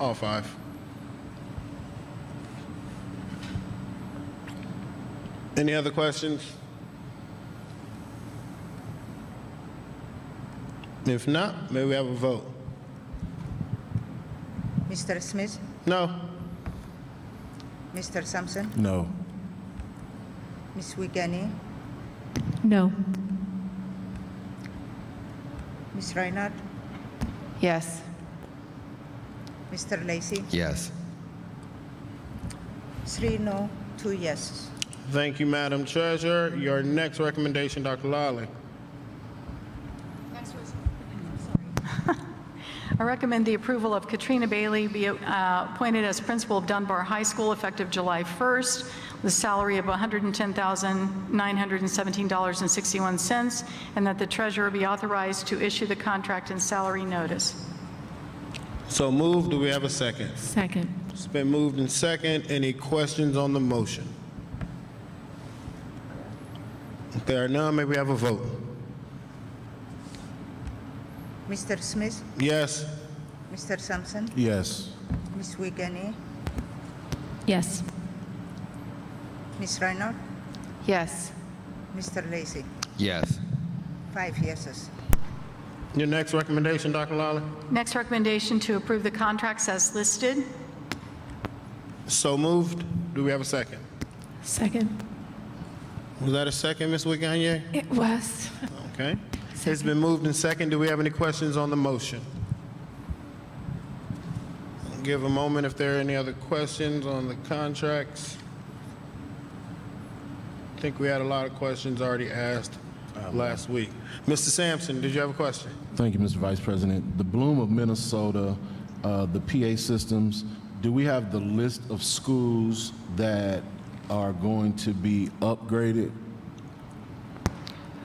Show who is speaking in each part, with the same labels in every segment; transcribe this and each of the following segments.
Speaker 1: All five. Any other questions? If not, may we have a vote?
Speaker 2: Mr. Smith,
Speaker 1: No?
Speaker 2: Mr. Sampson,
Speaker 3: No.
Speaker 2: Ms. Wiegany,
Speaker 4: No.
Speaker 2: Ms. Reinhardt,
Speaker 4: Yes.
Speaker 2: Mr. Lacy.
Speaker 5: Yes.
Speaker 2: Three no, two yeses.
Speaker 1: Thank you, Madam Treasurer. Your next recommendation, Dr. Lawley.
Speaker 6: I recommend the approval of Katrina Bailey be uh, appointed as principal of Dunbar High School effective July 1st, with a salary of $110,917.61, and that the treasurer be authorized to issue the contract and salary notice.
Speaker 1: So moved. Do we have a second?
Speaker 4: Second.
Speaker 1: It's been moved and second. Any questions on the motion? If there are none, may we have a vote?
Speaker 2: Mr. Smith,
Speaker 1: Yes?
Speaker 2: Mr. Sampson,
Speaker 3: Yes.
Speaker 2: Ms. Wiegany,
Speaker 4: Yes.
Speaker 2: Ms. Reinhardt,
Speaker 4: Yes.
Speaker 2: Mr. Lacy.
Speaker 5: Yes.
Speaker 2: Five yeses.
Speaker 1: Your next recommendation, Dr. Lawley?
Speaker 6: Next recommendation, to approve the contracts as listed.
Speaker 1: So moved. Do we have a second?
Speaker 4: Second.
Speaker 1: Was that a second, Ms. Wiggany?
Speaker 4: It was.
Speaker 1: Okay. It's been moved and second. Do we have any questions on the motion? Give a moment if there are any other questions on the contracts. I think we had a lot of questions already asked uh, last week. Mr. Sampson, did you have a question?
Speaker 3: Thank you, Mr. Vice President. The Bloom of Minnesota, uh, the PA systems, do we have the list of schools that are going to be upgraded?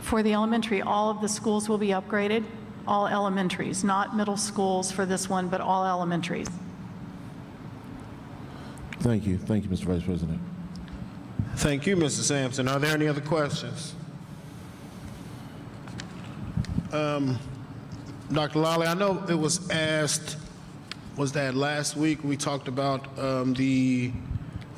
Speaker 6: For the elementary, all of the schools will be upgraded, all elementaries, not middle schools for this one, but all elementaries.
Speaker 3: Thank you, thank you, Mr. Vice President.
Speaker 1: Thank you, Mr. Sampson. Are there any other questions? Um, Dr. Lally, I know it was asked, was that last week we talked about um, the,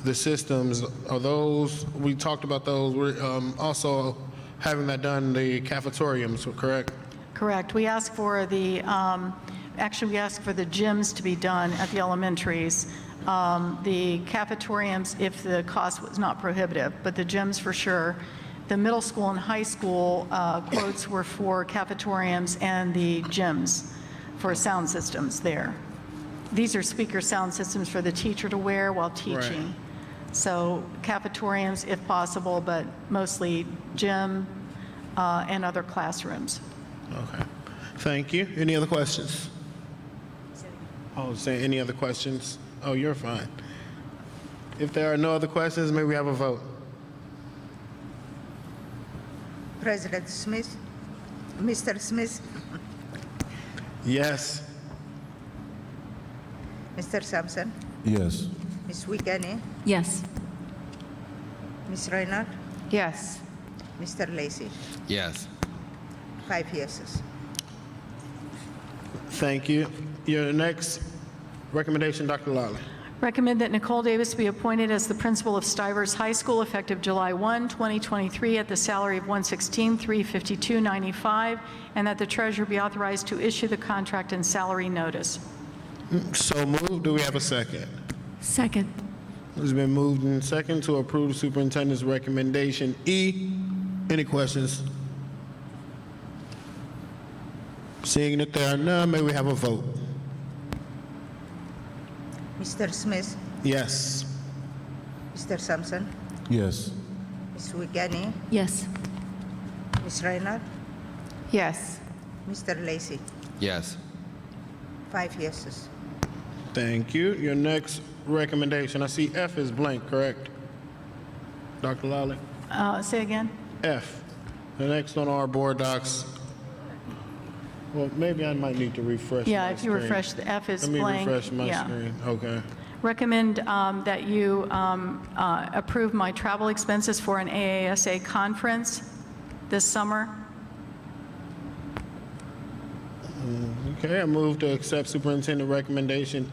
Speaker 1: the systems? Are those, we talked about those, we're um, also having that done in the cafeteriums, correct?
Speaker 6: Correct. We asked for the, um, actually, we asked for the gyms to be done at the elementaries. Um, The cafeteriums, if the cost was not prohibitive, but the gyms for sure. The middle school and high school uh, quotes were for cafeteriums and the gyms for sound systems there. These are speaker sound systems for the teacher to wear while teaching. So cafeteriums if possible, but mostly gym uh, and other classrooms.
Speaker 1: Okay. Thank you. Any other questions? Oh, say any other questions? Oh, you're fine. If there are no other questions, may we have a vote?
Speaker 2: President Smith, Mr. Smith,
Speaker 1: Yes.
Speaker 2: Mr. Sampson,
Speaker 3: Yes.
Speaker 2: Ms. Wiegany,
Speaker 4: Yes.
Speaker 2: Ms. Reinhardt,
Speaker 4: Yes.
Speaker 2: Mr. Lacy.
Speaker 5: Yes.
Speaker 2: Five yeses.
Speaker 1: Thank you. Your next recommendation, Dr. Lally.
Speaker 6: Recommend that Nicole Davis be appointed as the principal of Stivers High School effective July 1, 2023, at the salary of 116,352.95, and that the treasurer be authorized to issue the contract and salary notice.
Speaker 1: So moved. Do we have a second?
Speaker 4: Second.
Speaker 1: It's been moved and second to approve superintendent's recommendation E. Any questions? Seeing that there are none, may we have a vote?
Speaker 2: Mr. Smith,
Speaker 1: Yes.
Speaker 2: Mr. Sampson,
Speaker 3: Yes.
Speaker 2: Ms. Wiegany,
Speaker 4: Yes.
Speaker 2: Ms. Reinhardt,
Speaker 4: Yes.
Speaker 2: Mr. Lacy.
Speaker 5: Yes.
Speaker 2: Five yeses.
Speaker 1: Thank you. Your next recommendation, I see F is blank, correct? Dr. Lally?
Speaker 6: Uh, Say again?
Speaker 1: F, the next on our board docs. Well, maybe I might need to refresh
Speaker 6: Yeah,
Speaker 1: my
Speaker 6: if you
Speaker 1: screen.
Speaker 6: refresh, the F is
Speaker 1: Let me
Speaker 6: blank.
Speaker 1: refresh my
Speaker 6: Yeah.
Speaker 1: screen. Okay.
Speaker 6: Recommend um, that you um, uh, approve my travel expenses for an AASA conference this summer.
Speaker 1: Okay, I move to accept superintendent recommendation